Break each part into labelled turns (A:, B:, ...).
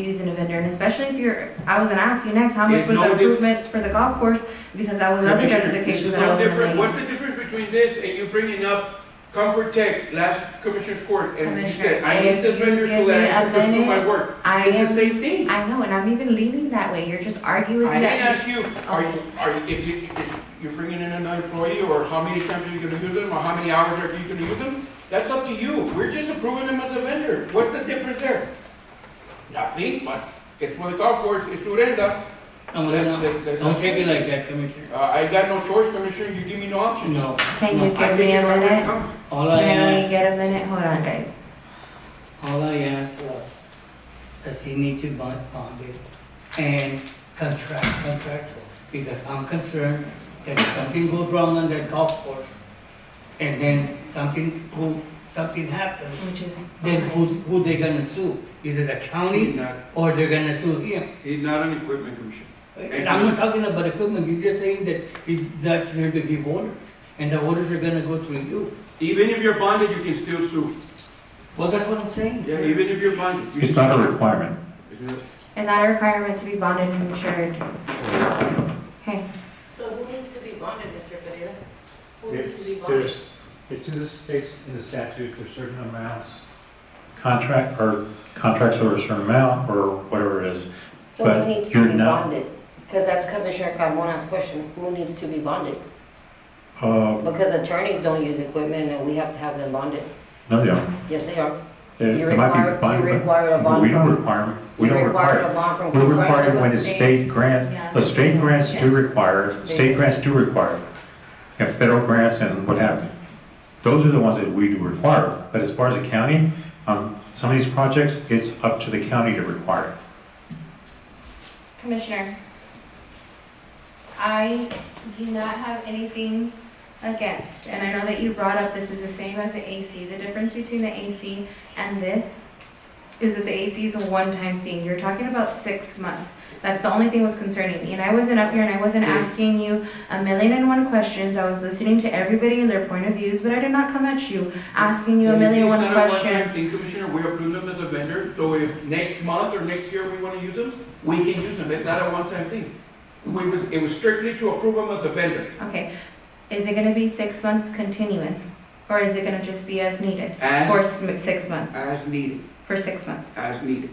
A: using a vendor, and especially if you're, I was gonna ask you next, how much
B: It's
A: was
B: no
A: the
B: diff-
A: improvements for the golf course? Because that was another
B: Commissioner,
A: justification
B: this is
A: that I
B: no
A: was gonna
B: different.
A: make.
B: What's the difference between this and you bringing up Comfort Tech last Commissioner's Court and you said,
A: Commissioner,
B: I need this
A: if you
B: vendor
A: give
B: so that I
A: me
B: can
A: a
B: pursue my
A: minute,
B: work?
A: I
B: It's the
A: am,
B: same thing.
A: I know, and I'm even leaning that way, you're just arguing
B: I didn't
A: that.
B: ask you, are you, are you, if you, if you're bringing in another employee or how many times are you gonna use them or how many hours are you gonna use them? That's up to you. We're just approving them as a vendor. What's the difference there? Not me, but it's for the golf course, it's Urenda.
C: I'm gonna,
B: There's- there's-
C: don't take it like that, Commissioner.
B: Uh, I got no choice, Commissioner, you give me no option.
C: No,
A: Can you
C: no.
B: I
A: give
B: take
A: me
B: it
A: a
B: right when it
A: minute?
B: comes.
C: all I
A: Can we
C: asked,
A: get a minute? Hold on, guys.
C: all I asked was, does he need to bond, bond it and contract, contractual? Because I'm concerned that if something goes wrong on that golf course, and then something, who, something happens,
A: Which is.
C: then who's, who they gonna sue? Either the
B: He's
C: county,
B: not,
C: or they're gonna sue him.
B: he's not an equipment commissioner.
C: And I'm not talking about equipment, you're just saying that he's, that's there to give orders, and the orders are gonna go through you.
B: Even if you're bonded, you can still sue.
C: Well, that's what I'm saying.
B: Yeah,
C: sir.
B: even if you're bonded. you
D: It's
B: can
D: not a
B: sue.
D: requirement.
B: It's not-
A: And that a requirement to be bonded and insured. Hey,
E: So who needs to be bonded, Mr. Pereira? Who needs to be
F: It's-
E: bonded?
F: There's, it's in the states, in the statute, there's certain amounts.
D: Contract, or contracts over a certain amount, or whatever it is.
E: So
D: but
E: who needs
D: you're
E: to be
D: not-
E: bonded? Because that's Commissioner Carmona's question, who needs to be bonded?
D: Uh,
E: Because attorneys don't use equipment and we have to have them bonded.
D: no, they don't.
E: Yes, they are.
D: It
E: You
D: it might be
E: require-
D: required,
E: you require a
D: but we don't
E: bond.
D: require, we
E: You
D: don't
E: require
D: require.
E: a bond from.
D: We
E: Congress,
D: require it
E: that's
D: when
E: the
D: it's
E: state.
D: state grant, the state grants do require, state grants do require. And federal grants and what have you. Those are the ones that we do require, but as far as the county, um, some of these projects, it's up to the county to require. it.
A: Commissioner. I do not have anything against, and I know that you brought up this is the same as the AC. The difference between the AC and this is that the AC is a one-time thing. You're talking about six months. That's the only thing was concerning me. And I wasn't up here and I wasn't asking you a million and one questions. I was listening to everybody and their point of views, but I did not come at you asking you a million and one
B: It's not a one-time
A: questions.
B: thing, Commissioner, we approve them as a vendor, so if next month or next year we want to use them, we can use them. It's not a one-time thing. We was, it was strictly to approve them as a vendor
A: Okay, is it gonna be six months continuous, or is it gonna just be as needed? For
B: as,
A: s- six months,
B: as needed,
A: for six months?
B: as needed.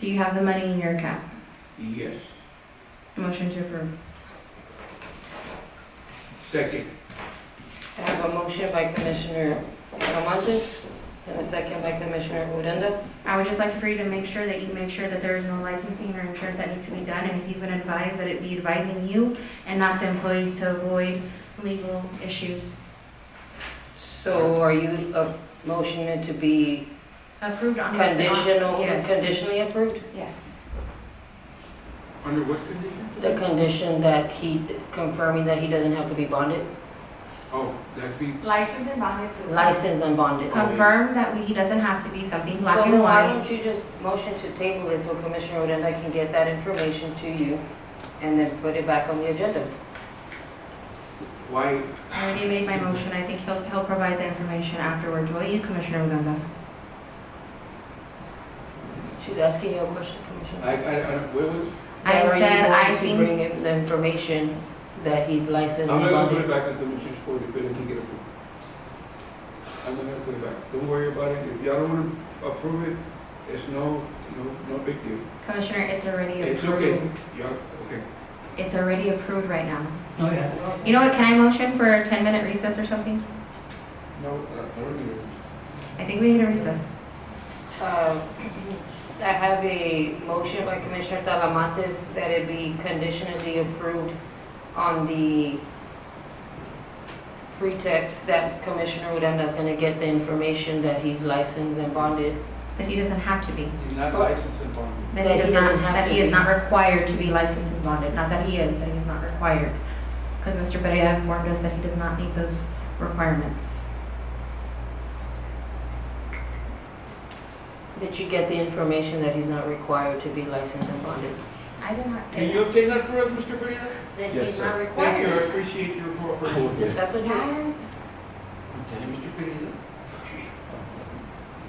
A: Do you have the money in your account?
B: Yes.
A: Motion to approve.
B: Second,
E: I have a motion by Commissioner Talamantes and a second by Commissioner Odena.
A: I would just like for you to make sure that you make sure that there is no licensing or insurance that needs to be done, and if he's gonna advise, that it be advising you and not the employees to avoid legal issues.
E: So are you uh, motioning to be
A: Approved on. this-
E: conditional,
A: Yes,
E: conditionally approved?
A: yes.
B: under what condition?
E: The condition that he, confirming that he doesn't have to be bonded,
B: Oh, that'd be,
A: Licensed and bonded.
E: licensed and bonded.
A: Confirm that we- he doesn't have to be something black
E: So
A: and
E: then why
A: white.
E: don't you just motion to table it so Commissioner Odena can get that information to you and then put it back on the agenda?
B: why,
A: I already made my motion, I think he'll, he'll provide the information afterwards, will you, Commissioner Odena?
E: She's asking you a question, Commissioner.
B: I, I, I, what was?
A: I
E: Are you
A: said
E: going
A: I
E: to
A: think-
E: Bring him the information that he's
B: I'm
E: licensed and
B: not gonna put it
E: bonded.
B: back in Commissioner's Court if it doesn't get approved. I'm not gonna put it back. Don't worry about it. If y'all don't wanna approve it, it's no, no, no big deal.
A: Commissioner, it's already
B: It's okay.
A: approved.
B: Yeah, okay.
A: It's already approved right now.
C: Oh, yes.
A: You know what, can I motion for a 10-minute recess or something?
B: No, uh, I don't need it.
A: I think we need a recess.
E: Uh, I have a motion by Commissioner Talamantes that it be conditionally approved on the pretext that Commissioner Odena is going to get the information that he's licensed and bonded
A: That he doesn't have to be.
B: He's not licensed and bonded.
A: That he does not, that he is not required to be licensed and bonded, not that he is, that he is not required. Because Mr. Perea informed us that he does not meet those requirements.
E: That you get the information that he's not required to be licensed and bonded.
A: I did not
B: Can you obtain that for us, Mr. Pereira?
E: That
F: Yes,
E: he's not
B: Thank you, I
E: required.
B: appreciate your cooperation.
E: That's what you,
B: I'm telling Mr. Pereira.